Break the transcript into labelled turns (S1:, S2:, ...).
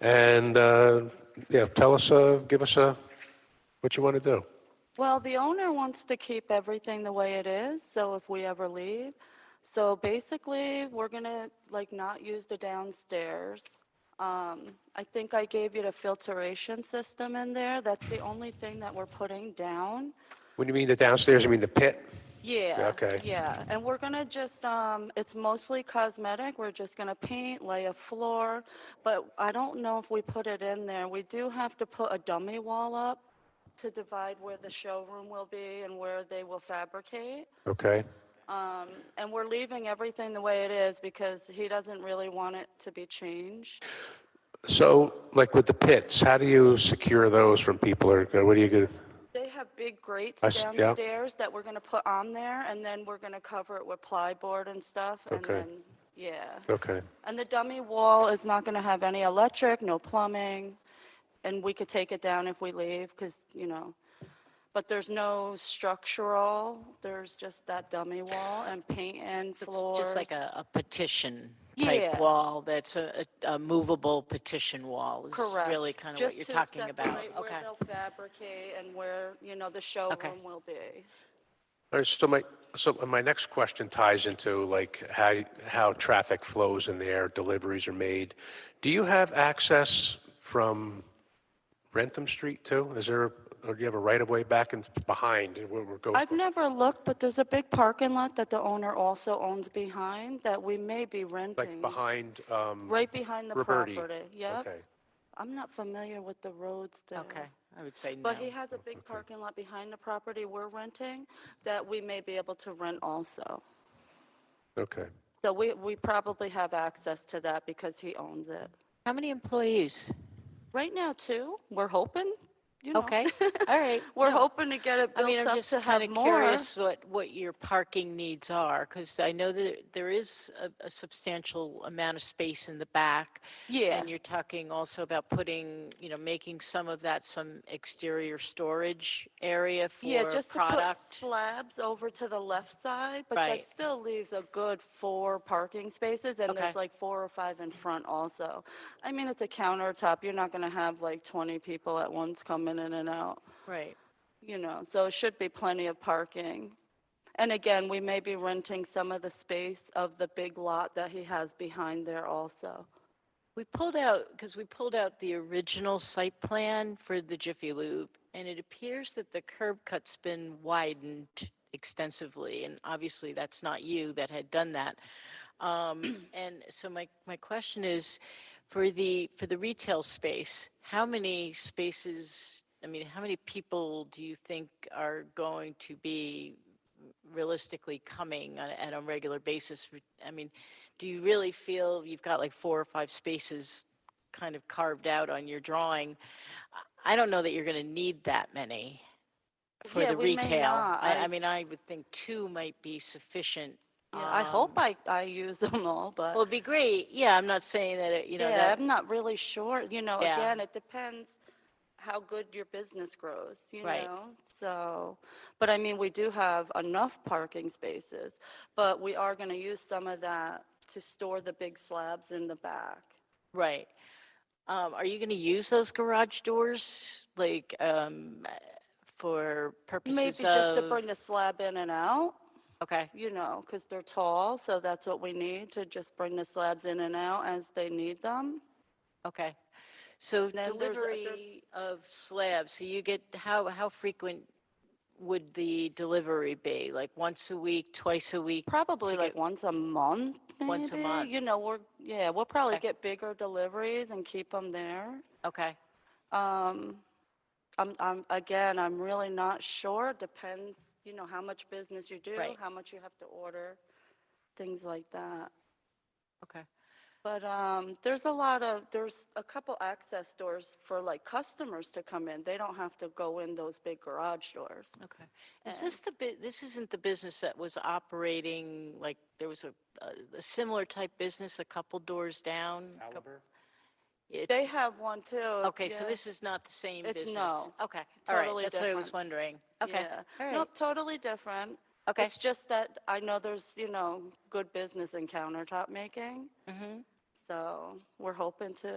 S1: And, uh, yeah, tell us, uh, give us a, what you want to do.
S2: Well, the owner wants to keep everything the way it is, so if we ever leave. So basically, we're gonna like not use the downstairs. Um, I think I gave you the filtration system in there. That's the only thing that we're putting down.
S1: When you mean the downstairs, you mean the pit?
S2: Yeah.
S1: Okay.
S2: Yeah, and we're gonna just, um, it's mostly cosmetic, we're just gonna paint, lay a floor, but I don't know if we put it in there, we do have to put a dummy wall up to divide where the showroom will be and where they will fabricate.
S1: Okay.
S2: Um, and we're leaving everything the way it is because he doesn't really want it to be changed.
S1: So, like with the pits, how do you secure those from people or what do you get?
S2: They have big grates
S1: I s- yeah.
S2: downstairs that we're gonna put on there, and then we're gonna cover it with plyboard and stuff, and
S1: Okay.
S2: then, yeah.
S1: Okay.
S2: And the dummy wall is not going to have any electric, no plumbing, and we could take it down if we leave, because, you know, but there's no structural, there's just that dummy wall and paint and
S3: It's
S2: floors.
S3: just like a, a petition
S2: Yeah.
S3: type wall, that's a, a a movable petition wall is
S2: Correct.
S3: really kind of what
S2: Just
S3: you're
S2: to
S3: talking about.
S2: separate
S3: Okay.
S2: Where they'll fabricate and where, you know, the showroom will be.
S1: All right, so my, so my next question ties into like how, how traffic flows in there, deliveries are made. Do you have access from Rentham Street too? Is there, or do you have a right of way back and behind where we're going?
S2: I've never looked, but there's a big parking lot that the owner also owns behind that we may be
S1: Like
S2: renting,
S1: behind, um,
S2: right behind the
S1: Roberti.
S2: property. eh, Yep.
S1: okay.
S2: I'm not familiar with the roads there.
S3: Okay, I would say no.
S2: But he has a big parking lot behind the property we're renting that we may be able to rent also.
S1: Okay.
S2: So we, we probably have access to that because he owns it.
S3: How many employees?
S2: Right now too, we're hoping, you know.
S3: Okay, all right.
S2: We're
S3: no.
S2: hoping to get it
S3: I mean,
S2: built
S3: I'm
S2: up
S3: just
S2: to have
S3: kind of
S2: more.
S3: curious what, what your parking needs are, because I know that there is a, a substantial amount of space in the back.
S2: Yeah.
S3: And you're talking also about putting, you know, making some of that some exterior storage area
S2: Yeah,
S3: for
S2: just to put
S3: product.
S2: slabs over to the left side, but
S3: Right.
S2: that still leaves a good four parking spaces and there's
S3: Okay.
S2: like four or five in front also. I mean, it's a countertop. You're not going to have like 20 people at once coming in and out.
S3: Right.
S2: you know, so it should be plenty of parking. And again, we may be renting some of the space of the big lot that he has behind there also.
S3: We pulled out, because we pulled out the original site plan for the Jiffy Lube, and it appears that the curb cut's been widened extensively, and obviously that's not you that had done that. Um, And so my, my question is, for the, for the retail space, how many spaces, I mean, how many people do you think are going to be realistically coming on, a- on a regular basis? Re- I mean, do you really feel you've got like four or five spaces kind of carved out on your drawing? I- I don't know that you're going to need that many for
S2: Yeah,
S3: the
S2: we may
S3: retail.
S2: not.
S3: I,
S2: I-
S3: I mean, I would think two might be sufficient.
S2: Yeah, Uh, I
S3: um,
S2: hope I, I use them all, but
S3: Well, it'd be great. Yeah, I'm not saying that, it- you know,
S2: yeah,
S3: that,
S2: I'm not really sure. You know,
S3: Yeah.
S2: again, it depends how good your business grows, you
S3: Right.
S2: know? So, but I mean, we do have enough parking spaces, but we are going to use some of that to store the big slabs in the back.
S3: right. Um, are you going to use those garage doors? Like, um, for
S2: Maybe
S3: purposes
S2: just to
S3: of,
S2: bring the slab in and out.
S3: okay,
S2: you know, because they're tall, so that's what we need to just bring the slabs in and out as they need them.
S3: okay. So
S2: Then there's a- there's-
S3: delivery of slabs, so you get, how, how frequent would the delivery be? Like once a week, twice a week?
S2: Probably
S3: to
S2: like
S3: get-
S2: once a month,
S3: Once a
S2: maybe.
S3: month.
S2: You know, we're, yeah, we'll probably
S3: Okay.
S2: get bigger deliveries and keep them there.
S3: Okay,
S2: Um, I'm, I'm, again, I'm really not sure. It Depends, you know, how much business you do,
S3: Right.
S2: how much you have to order, things like that.
S3: okay.
S2: But um, there's a lot of, there's a couple access doors for like customers to come in. They don't have to go in those big garage doors.
S3: Okay. Is this the, bu- this isn't the business that was operating, like, there was a, a- a similar type business a couple doors down? a coup- It's,
S2: They have one too.
S3: okay, so
S2: yeah,
S3: this is not the same
S2: It's
S3: business?
S2: no,
S3: Okay, all right,
S2: totally
S3: that's what I was
S2: different.
S3: wondering. Okay,
S2: yeah.
S3: all right,
S2: Nope, totally different.
S3: okay.
S2: It's just that I know there's, you know, good business in countertop making.
S3: Mhm.
S2: So we're hoping to